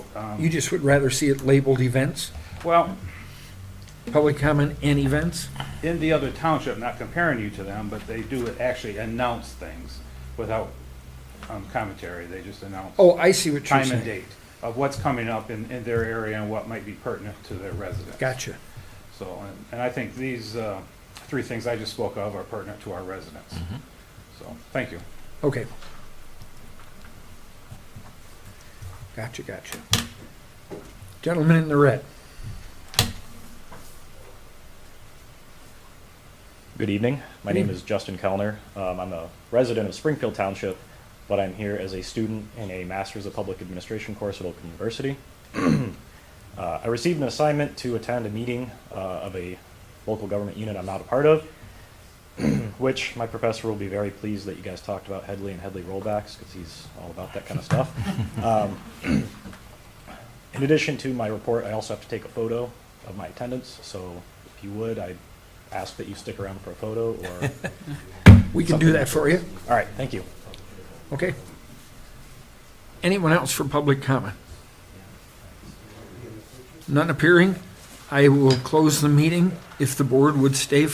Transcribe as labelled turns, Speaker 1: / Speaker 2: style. Speaker 1: um,
Speaker 2: You just would rather see it labeled events,
Speaker 1: well,
Speaker 2: public comment and events?
Speaker 1: in the other township, not comparing you to them, but they do actually announce things without um, commentary. They just announce
Speaker 2: Oh, I see what you're
Speaker 1: time and
Speaker 2: saying.
Speaker 1: date of what's coming up in, in their area and what might be pertinent to their residents.
Speaker 2: Gotcha.
Speaker 1: So, and- and I think these uh, three things I just spoke of are pertinent to our residents. So, thank you.
Speaker 2: Okay. Gotcha, gotcha. Gentleman in the red.
Speaker 3: Good evening. My name is Justin Kellner. Um, I'm a resident of Springfield Township, but I'm here as a student in a Master's of Public Administration course at Open University. Uh, I received an assignment to attend a meeting uh, of a local government unit I'm not a part of, which my professor will be very pleased that you guys talked about Headley and Headley rollbacks because he's all about that kind of stuff. Um, in addition to my report, I also have to take a photo of my attendance. So if you would, I ask that you stick around for a photo or.
Speaker 2: We can do that for you.
Speaker 3: All right, thank you.
Speaker 2: Okay. Anyone else for public comment? None appearing? I will close the meeting if the board would stay